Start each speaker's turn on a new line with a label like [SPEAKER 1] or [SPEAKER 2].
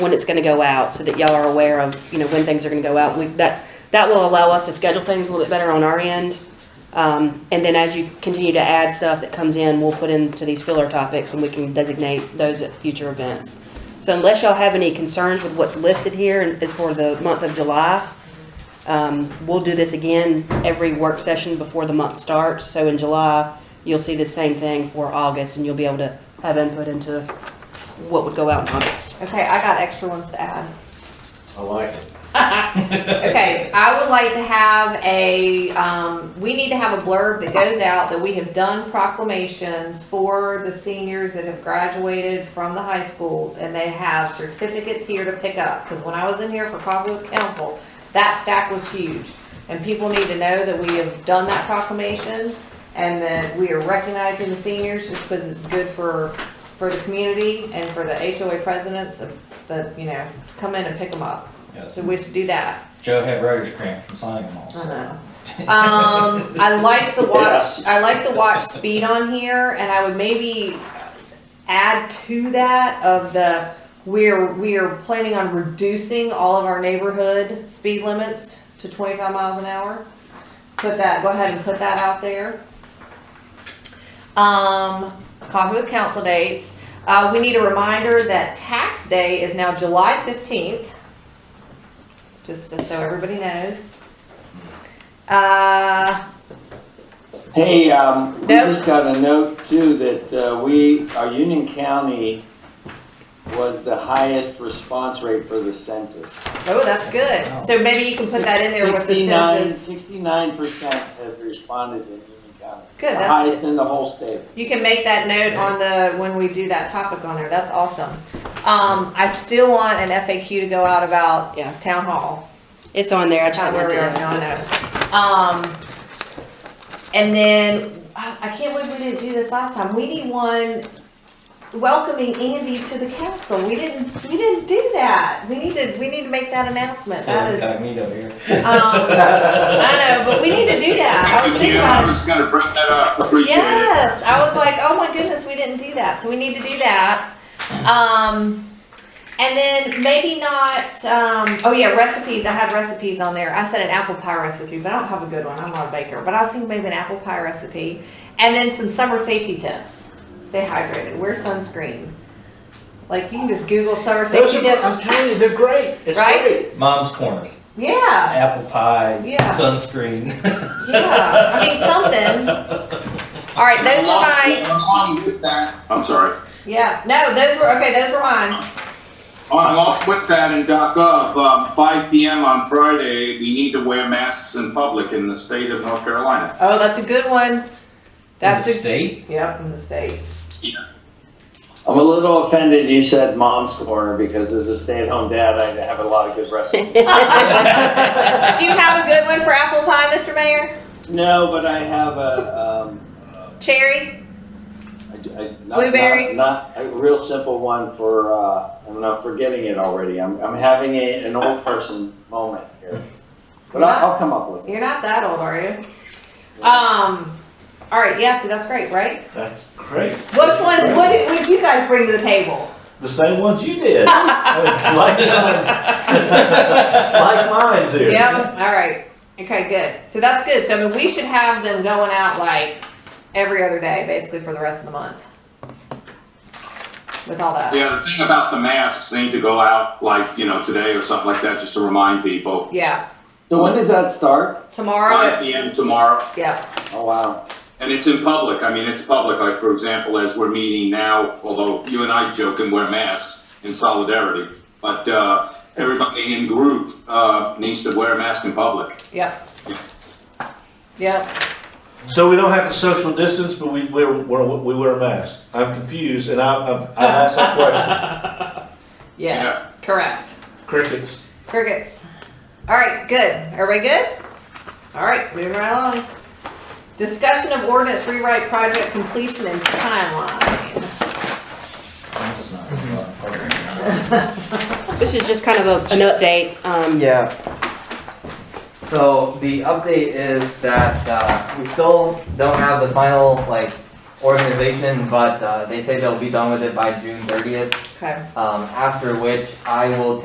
[SPEAKER 1] when it's gonna go out, so that y'all are aware of, you know, when things are gonna go out. We, that, that will allow us to schedule things a little bit better on our end. Um, and then as you continue to add stuff that comes in, we'll put into these filler topics and we can designate those at future events. So unless y'all have any concerns with what's listed here and is for the month of July, um, we'll do this again every work session before the month starts. So in July, you'll see the same thing for August and you'll be able to have input into what would go out in August.
[SPEAKER 2] Okay, I got extra ones to add.
[SPEAKER 3] I like it.
[SPEAKER 2] Okay, I would like to have a, um, we need to have a blurb that goes out that we have done proclamations for the seniors that have graduated from the high schools and they have certificates here to pick up. Cause when I was in here for Cottonwood Council, that stack was huge. And people need to know that we have done that proclamation and that we are recognizing the seniors just because it's good for, for the community and for the HOA presidents that, you know, come in and pick them up.
[SPEAKER 4] Yes.
[SPEAKER 2] So we should do that.
[SPEAKER 4] Joe had rotors cramp from signing them all.
[SPEAKER 2] I
[SPEAKER 4] so-
[SPEAKER 2] know. Um, I like the watch, I like the watch speed on here, and I would maybe add to that of the, we're, we're planning on reducing all of our neighborhood speed limits to twenty-five miles an hour. Put that, go ahead and put that out there. Um, coffee with council dates, uh, we need a reminder that tax day is now July fifteenth. Just so everybody knows. Uh,
[SPEAKER 5] Hey, um, we
[SPEAKER 2] Nope.
[SPEAKER 5] just got a note too that, uh, we, our Union County was the highest response rate for the census.
[SPEAKER 2] oh, that's good. So maybe you can put that in there with the
[SPEAKER 5] 69
[SPEAKER 2] census.
[SPEAKER 5] Sixty-nine percent have responded in Union County.
[SPEAKER 2] Good,
[SPEAKER 5] The
[SPEAKER 2] that's
[SPEAKER 5] highest
[SPEAKER 2] good.
[SPEAKER 5] in the whole state.
[SPEAKER 2] You can make that note on the, when we do that topic on there. That's awesome. Um, I still want an FAQ to go out about
[SPEAKER 1] Yeah.
[SPEAKER 2] town hall.
[SPEAKER 1] It's on there. I just
[SPEAKER 2] Not where
[SPEAKER 1] haven't
[SPEAKER 2] we are
[SPEAKER 1] looked
[SPEAKER 2] now,
[SPEAKER 1] at
[SPEAKER 2] I
[SPEAKER 1] it.
[SPEAKER 2] know. Um, and then, I, I can't believe we didn't do this last time. We need one welcoming Andy to the council. We didn't, we didn't do that. We need to, we need to make that announcement.
[SPEAKER 4] Still
[SPEAKER 2] That is.
[SPEAKER 4] incognito here.
[SPEAKER 2] Um, I know, but we need to do that. I was thinking
[SPEAKER 6] Yeah, I
[SPEAKER 2] about
[SPEAKER 6] was gonna bring that up, appreciate it.
[SPEAKER 2] Yes, I was like, oh my goodness, we didn't do that, so we need to do that. Um, and then maybe not, um, oh yeah, recipes, I had recipes on there, I said an apple pie recipe, but I don't have a good one, I'm not a baker, but I was thinking maybe an apple pie recipe. And then some summer safety tips, stay hydrated, wear sunscreen. Like, you can just Google summer
[SPEAKER 3] Those
[SPEAKER 2] safety
[SPEAKER 3] are, I'm
[SPEAKER 2] tips,
[SPEAKER 3] telling you, they're great. It's
[SPEAKER 2] Right?
[SPEAKER 3] great.
[SPEAKER 4] Mom's corner,
[SPEAKER 2] yeah,
[SPEAKER 4] apple pie,
[SPEAKER 2] Yeah.
[SPEAKER 4] sunscreen.
[SPEAKER 2] yeah, I mean, something. Alright, those are my.
[SPEAKER 6] Along with that, I'm sorry,
[SPEAKER 2] Yeah, no, those were, okay, those were mine.
[SPEAKER 6] along with that in .gov, um, five PM on Friday, we need to wear masks in public in the state of North Carolina.
[SPEAKER 2] Oh, that's a good one. That's
[SPEAKER 4] In the
[SPEAKER 2] a,
[SPEAKER 4] state.
[SPEAKER 2] yep, in the state.
[SPEAKER 5] I'm a little offended you said mom's corner because as a stay-at-home dad, I have a lot of good recipes.
[SPEAKER 2] Do you have a good one for apple pie, Mr. Mayor?
[SPEAKER 5] No, but I have a, um,
[SPEAKER 2] Cherry?
[SPEAKER 5] I- I- not-
[SPEAKER 2] Blueberry?
[SPEAKER 5] Not, not a real simple one for, uh, I'm not forgetting it already. I'm, I'm having a, an old person moment here. But I'll, I'll come up with it.
[SPEAKER 2] You're not that old, are you? Um, all right, yeah, so that's great, right?
[SPEAKER 3] That's great.
[SPEAKER 2] Which one, what did, what did you guys bring to the table?
[SPEAKER 3] The same ones you did. I mean, Like mine's, like mine's here.
[SPEAKER 2] Yep, all right. Okay, good. So that's good. So I mean, we should have them going out like every other day, basically for the rest of the month. With all that.
[SPEAKER 6] Yeah, the thing about the masks, they need to go out like, you know, today or something like that, just to remind people.
[SPEAKER 2] Yeah,
[SPEAKER 5] So when does that start?
[SPEAKER 2] tomorrow,
[SPEAKER 6] Five PM tomorrow,
[SPEAKER 2] yeah,
[SPEAKER 5] Oh, wow.
[SPEAKER 6] and it's in public, I mean, it's public, like, for example, as we're meeting now, although you and I joke and wear masks in solidarity, but, uh, everybody in group, uh, needs to wear a mask in public.
[SPEAKER 2] yep. Yep.
[SPEAKER 3] So we don't have to social distance, but we wear, wear we wear a mask. I'm confused, and I I'm, I asked that question.
[SPEAKER 2] Yes, correct.
[SPEAKER 3] Crickets.
[SPEAKER 2] Crickets. All right, good. Everybody good? All right, moving right along. Discussion of ordinance rewrite project completion and timeline.
[SPEAKER 4] I'm just not gonna go out and party.
[SPEAKER 1] This is just kind of a, an update. Um,
[SPEAKER 7] Yeah. So the update is that uh, we still don't have the final like organization, but uh, they say they'll be done with it by June 30th.
[SPEAKER 2] Okay.
[SPEAKER 7] Um, after which, I will